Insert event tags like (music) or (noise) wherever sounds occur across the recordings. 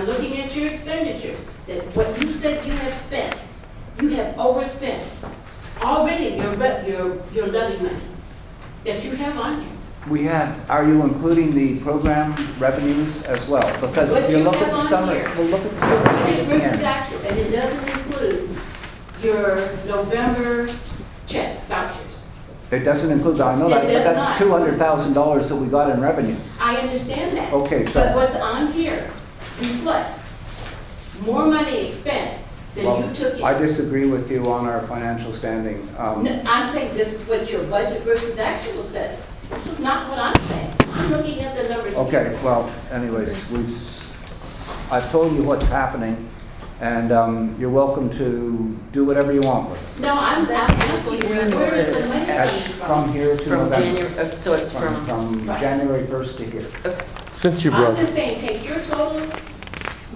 I'm looking at your expenditures, that what you said you have spent, you have overspent already your, re- your, your levy money that you have on here. We have, are you including the program revenues as well? Because What if you you look at have the on summary, here. well, look at the summary sheet Take versus again. actual, and it doesn't include your November checks, vouchers. It doesn't include, I know It that, but does that's two not. hundred thousand dollars that we got in revenue. I understand that. Okay, so- But what's on here reflects more money expended Well, than you took in. I disagree with you on our financial standing. Um, No, I'm saying this is what your budget versus actual says. This is not what I'm saying. I'm looking at the numbers here. Okay, well, anyways, we've, s- I've told you what's happening, and um, you're welcome to do whatever you want with it. No, I'm, I'm asking you, where is the money That's coming from from? here to From November. January, oh, so it's From, from, from right. January 1st to here. Since you I'm brought, just saying, take your total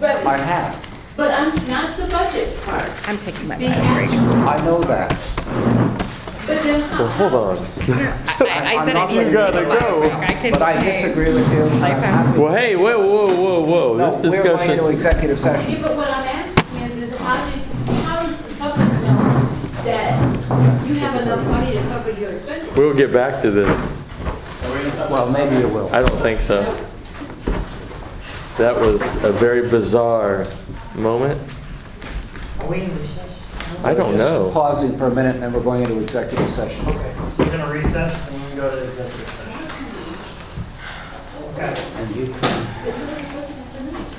I revenue, have, but I'm not the budget part, I'm taking my the mind break. actual. I know that. But then well, Oh, hold how, on. I I I'm said not I needed gonna to take a gotta mind go. break. I can But I say- disagree with you. and I'm happy- Well, hey, whoa, whoa, whoa, whoa, No, this We're going into discussion, executive session. yeah, but what I'm asking is, is how do, how does the public know that you have enough money to cover your expenses? we'll get back to this. Well, maybe you will. I don't think so. That was a very bizarre moment. are we in recess? I don't Just know. Pausing for a minute, and then we're going into executive session. Okay, so we're gonna recess and then go to executive session. Okay. And you can But nobody's looking at the numbers.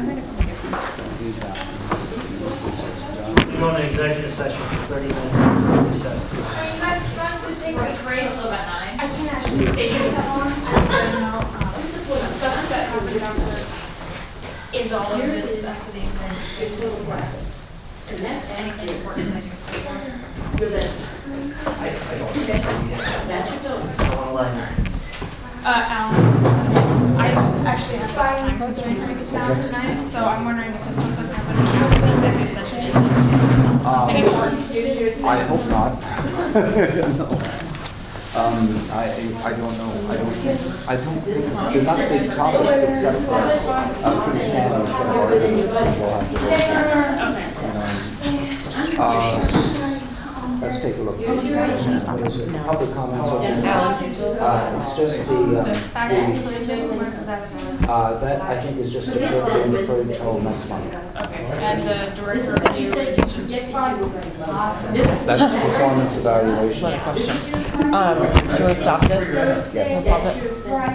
do that. We go to executive session for 30 minutes and recess. Are you guys trying to take a break? I can actually stay here that long. This is what the stuff that happens after, is all of this stuff that Your total profit. And that's anything accurate. important that you're saying. Your levy. I, I don't think so, yes. That's your total. I want to line. Uh, Alan, I s- actually have a time constraint trying to get down tonight, so I'm wondering if the stuff that's happening after the executive session is something important to do tonight. I hope not. (laughs) No. Um, I, I don't know, I don't think, I don't think, there's not big topics except for a pretty standard set of ordinances that we'll have to go through. And, um, uh, Let's take a look. What is it? Public comments And open. Alan, your total. Uh, it's just the, The fact that um, you're doing work is that, the, uh, that I think is just a good thing for until next month. okay, and the This director is of what you you said. is you just, get to. This is- That's performance evaluation. Um, do you want to stop Yes. this? Pause it. That's your expense.